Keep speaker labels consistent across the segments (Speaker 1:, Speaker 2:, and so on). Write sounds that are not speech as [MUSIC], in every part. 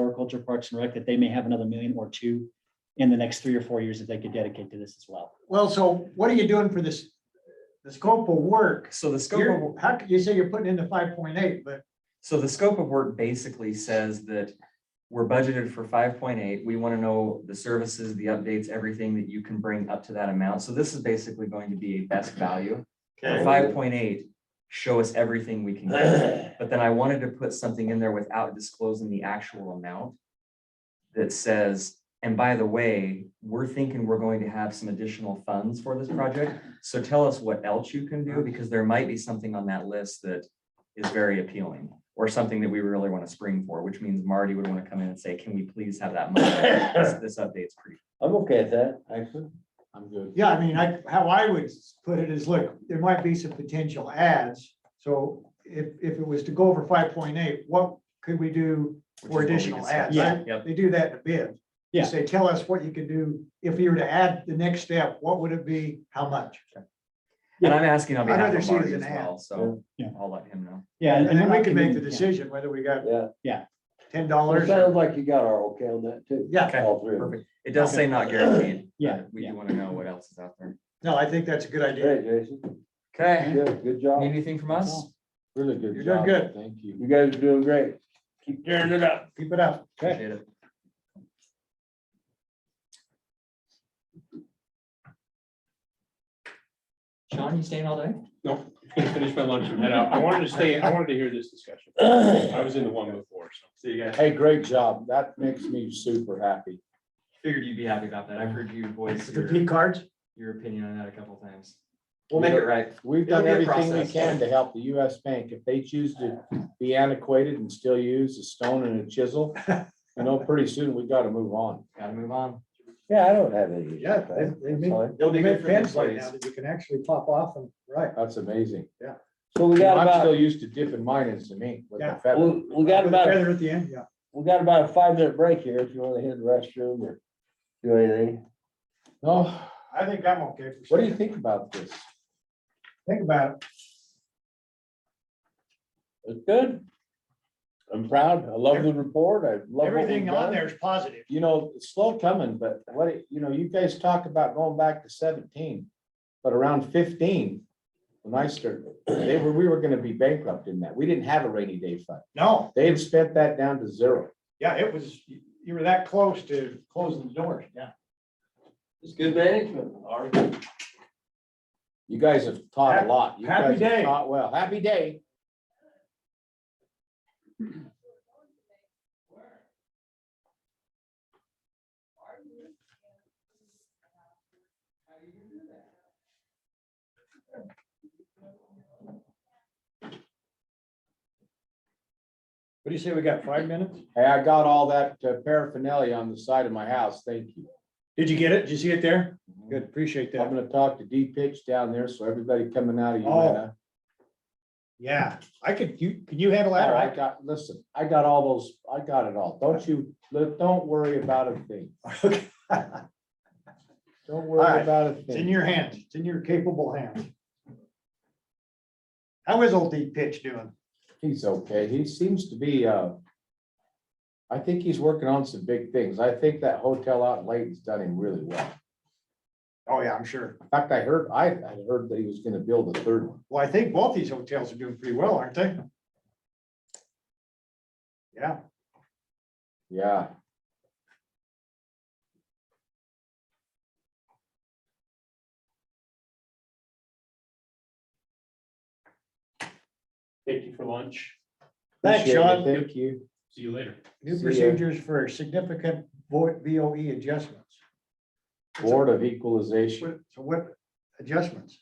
Speaker 1: Agriculture, Parks and Rec, that they may have another million or two in the next three or four years that they could dedicate to this as well.
Speaker 2: Well, so what are you doing for this, the scope of work?
Speaker 3: So the scope of,
Speaker 2: You're, how, could you say you're putting in the five point eight, but
Speaker 3: so the scope of work basically says that we're budgeted for five point eight. We want to know the services, the updates, everything that you can bring up to that amount. So this is basically going to be a best value.
Speaker 4: Okay.
Speaker 3: Five point eight, show us everything we can get. But then I wanted to put something in there without disclosing the actual amount that says, and by the way, we're thinking we're going to have some additional funds for this project. So tell us what else you can do, because there might be something on that list that is very appealing or something that we really want to spring for, which means Marty would want to come in and say, can we please have that money? This this update's pretty.
Speaker 4: I'm okay with that, actually. I'm good.
Speaker 2: yeah, I mean, I, how I would put it is, look, there might be some potential ads. So if, if it was to go over five point eight, what could we do
Speaker 3: which is
Speaker 2: for
Speaker 3: what we
Speaker 2: additional
Speaker 3: decided.
Speaker 2: ads?
Speaker 1: Yeah.
Speaker 3: Yep.
Speaker 2: They do that in a bid. They
Speaker 1: Yeah.
Speaker 2: Say, tell us what you can do. If you were to add the next step, what would it be? How much?
Speaker 3: And I'm asking on
Speaker 2: I'd
Speaker 3: behalf
Speaker 2: rather
Speaker 3: of
Speaker 2: see it
Speaker 3: Marty
Speaker 2: as
Speaker 3: as
Speaker 2: an ad.
Speaker 3: well, so
Speaker 1: Yeah.
Speaker 3: I'll let him know.
Speaker 1: Yeah.
Speaker 2: And then
Speaker 1: we're
Speaker 2: we
Speaker 1: not
Speaker 2: can make the
Speaker 1: convenient, yeah.
Speaker 2: decision whether we got
Speaker 4: Yeah, well, it
Speaker 2: ten dollars.
Speaker 4: sounds like you got our okay on that too.
Speaker 2: Yeah,
Speaker 3: Okay,
Speaker 4: All three of us.
Speaker 3: perfect. It does say not guaranteed.
Speaker 1: Yeah,
Speaker 3: but We
Speaker 1: yeah.
Speaker 3: do want to know what else is out there.
Speaker 2: no, I think that's a good idea.
Speaker 4: Hey, Jason,
Speaker 3: Okay,
Speaker 4: good, good job,
Speaker 3: anything from us?
Speaker 4: really good
Speaker 2: You're doing
Speaker 4: job.
Speaker 2: good.
Speaker 4: Thank you. You guys are doing great. Keep tearing it up.
Speaker 2: Keep it up.
Speaker 1: Okay.
Speaker 3: Appreciate it. Sean, you staying all day?
Speaker 5: gonna finish my lunch and head out. I wanted to stay, I wanted to hear this discussion. I was in the one before, so.
Speaker 3: See you guys.
Speaker 6: Hey, great job. That makes me super happy.
Speaker 3: Figured you'd be happy about that. I've heard you voice
Speaker 2: The
Speaker 3: your,
Speaker 2: P cards.
Speaker 3: your opinion on that a couple times.
Speaker 6: We'll
Speaker 3: Get
Speaker 6: make it-
Speaker 3: right.
Speaker 6: We've
Speaker 3: It'll
Speaker 6: done
Speaker 3: be a
Speaker 6: everything we
Speaker 3: process.
Speaker 6: can to help the US Bank. If they choose to be antiquated and still use a stone and a chisel, you know, pretty soon we gotta move on.
Speaker 3: Gotta move on.
Speaker 4: Yeah, I don't have any.
Speaker 2: Yeah, they, they make,
Speaker 3: It'll
Speaker 2: they
Speaker 3: be
Speaker 2: make
Speaker 3: good for the
Speaker 2: pins like now
Speaker 3: employees.
Speaker 2: that you can actually pop off and, right.
Speaker 6: That's amazing.
Speaker 4: So we
Speaker 6: You know,
Speaker 4: got
Speaker 6: I'm
Speaker 4: about,
Speaker 6: still used to dipping mine in some ink with
Speaker 2: Yeah.
Speaker 6: a feather.
Speaker 4: we we got
Speaker 2: With
Speaker 4: about,
Speaker 2: feather At the end, yeah.
Speaker 4: we got about a five minute break here if you want to hit the restroom or do anything.
Speaker 6: No,
Speaker 2: I think I'm okay. for
Speaker 6: what do you
Speaker 2: sure.
Speaker 6: think about this?
Speaker 2: Think about
Speaker 6: It's good. I'm proud. I love the report. I love.
Speaker 2: it.
Speaker 6: what we've
Speaker 2: Everything on
Speaker 6: done.
Speaker 2: there is positive.
Speaker 6: you know, it's slow coming, but what, it- you know, you guys talk about going back to seventeen, but around fifteen, when I started, they were, we were gonna be bankrupt in that. We didn't have a rainy day fund.
Speaker 2: No,
Speaker 6: They had spent that down to zero.
Speaker 2: yeah, it was, you you were that close to closing the doors, yeah.
Speaker 4: It's good management. All right.
Speaker 6: You guys have taught a lot. You
Speaker 2: Happy
Speaker 6: guys have
Speaker 2: day.
Speaker 6: Taught well. Happy day.
Speaker 2: What do you say, we got five minutes?
Speaker 6: Hey, I got all that uh, paraphernalia on the side of my house. Thank you.
Speaker 2: Did you get it? Did you see it there? Good, appreciate that.
Speaker 6: I'm gonna talk to D pitch down there, so everybody coming out of
Speaker 2: Oh,
Speaker 6: Uinta.
Speaker 2: Yeah, I could, you, can you handle that?
Speaker 6: Oh, I
Speaker 2: right?
Speaker 6: got, listen, I got all those, I got it all. Don't you, don't worry about a thing.
Speaker 2: [LAUGHS] Okay.
Speaker 6: Don't
Speaker 2: All
Speaker 6: worry
Speaker 2: right.
Speaker 6: about a thing.
Speaker 2: It's in your hands. It's in your capable hands. How is old deep pitch doing?
Speaker 6: He's okay. He seems to be, uh, I think he's working on some big things. I think that hotel out in Layton's done him really well.
Speaker 2: Oh, yeah, I'm sure.
Speaker 6: In fact, I heard, I, I heard that he was gonna build a third one.
Speaker 2: Well, I think both these hotels are doing pretty well, aren't they? Yeah,
Speaker 6: Yeah.
Speaker 5: Thank you for lunch.
Speaker 2: Thanks,
Speaker 6: Appreciate it.
Speaker 2: Sean.
Speaker 6: Thank you.
Speaker 5: See you later.
Speaker 2: new
Speaker 6: See ya.
Speaker 2: procedures for significant vo- VOE adjustments.
Speaker 6: Board of Equalization.
Speaker 2: What- So what adjustments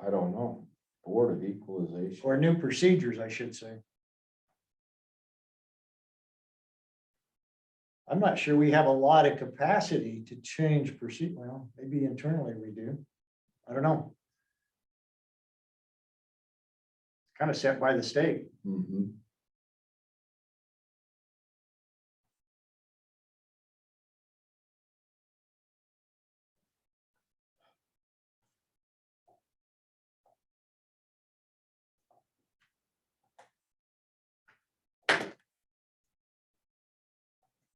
Speaker 6: I don't know. Board of Equalization.
Speaker 2: or new procedures, I should say? I'm not sure we have a lot of capacity to change procedure. Well, maybe internally we do. I don't know. It's Kind of set by the state.
Speaker 6: Mhm.